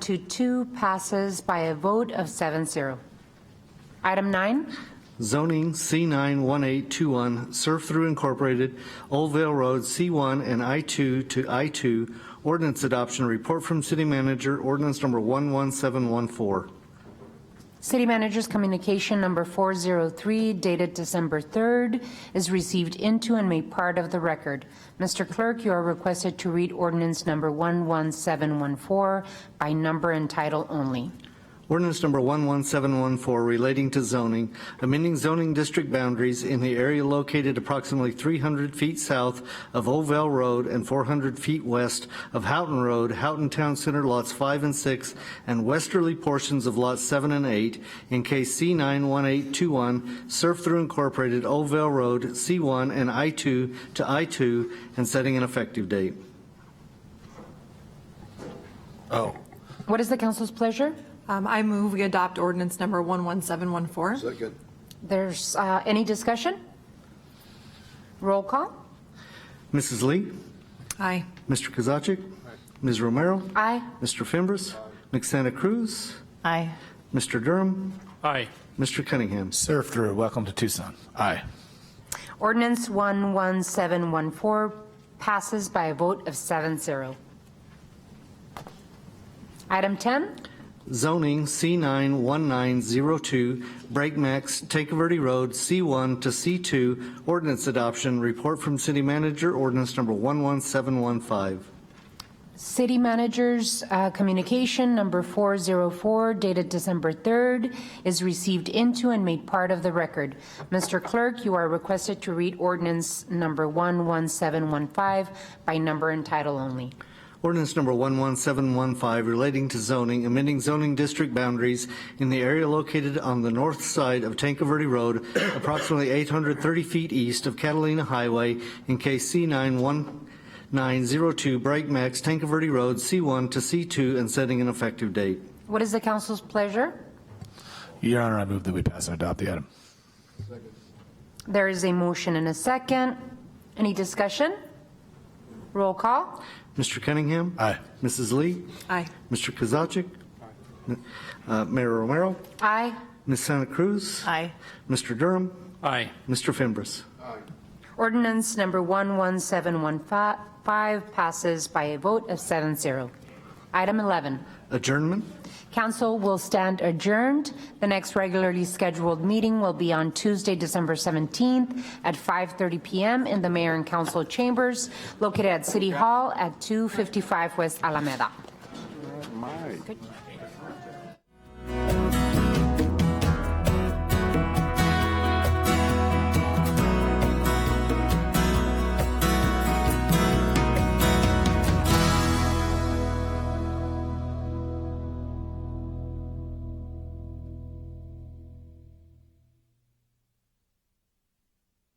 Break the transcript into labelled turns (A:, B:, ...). A: to two passes by a vote of 7-0. Item nine,
B: Zoning C91821, Surf Through Incorporated, Old Vale Road, C1 and I2 to I2. Ordinance adoption, report from city manager, ordinance number 11714.
A: City Manager's Communication Number 403 dated December 3rd is received into and made part of the record. Mr. Clerk, you are requested to read ordinance number 11714 by number and title only.
B: Ordinance number 11714 relating to zoning, amending zoning district boundaries in the area located approximately 300 feet south of Oval Road and 400 feet west of Houghton Road, Houghton Town Center lots 5 and 6, and westerly portions of lots 7 and 8, in case C91821, Surf Through Incorporated, Oval Road, C1 and I2 to I2, and setting an effective date.
C: Oh.
A: What is the council's pleasure?
D: Um, I move we adopt ordinance number 11714.
C: Second.
A: There's uh, any discussion? Roll call.
B: Mrs. Lee?
D: Aye.
B: Mr. Kozaczek? Ms. Romero?
A: Aye.
B: Mr. Fimbres? McSanta Cruz?
E: Aye.
B: Mr. Durham?
F: Aye.
B: Mr. Cunningham?
C: Surf through. Welcome to Tucson. Aye.
A: Ordinance 11714 passes by a vote of 7-0. Item 10,
B: Zoning C91902, Breakmax, Take Verde Road, C1 to C2, ordinance adoption, report from city manager, ordinance number 11715.
A: City Manager's uh, Communication Number 404 dated December 3rd is received into and made part of the record. Mr. Clerk, you are requested to read ordinance number 11715 by number and title only.
B: Ordinance number 11715 relating to zoning, amending zoning district boundaries in the area located on the north side of Tanca Verde Road, approximately 830 feet east of Catalina Highway in case C91902 Bright Max, Tanca Verde Road, C1 to C2, and setting an effective date.
A: What is the council's pleasure?
C: Your Honor, I move that we pass and adopt the item.
A: There is a motion and a second. Any discussion? Roll call.
B: Mr. Cunningham?
C: Aye.
B: Mrs. Lee?
D: Aye.
B: Mr. Kozaczek? Uh, Mayor Romero?
A: Aye.
B: Ms. Santa Cruz?
E: Aye.
B: Mr. Durham?
F: Aye.
B: Mr. Fimbres?
A: Ordinance number 11715 passes by a vote of 7-0. Item 11.
B: Adjournment?
A: Council will stand adjourned. The next regularly scheduled meeting will be on Tuesday, December 17th at 5:30 PM in the Mayor and Council Chambers located at City Hall at 255 West Alameda.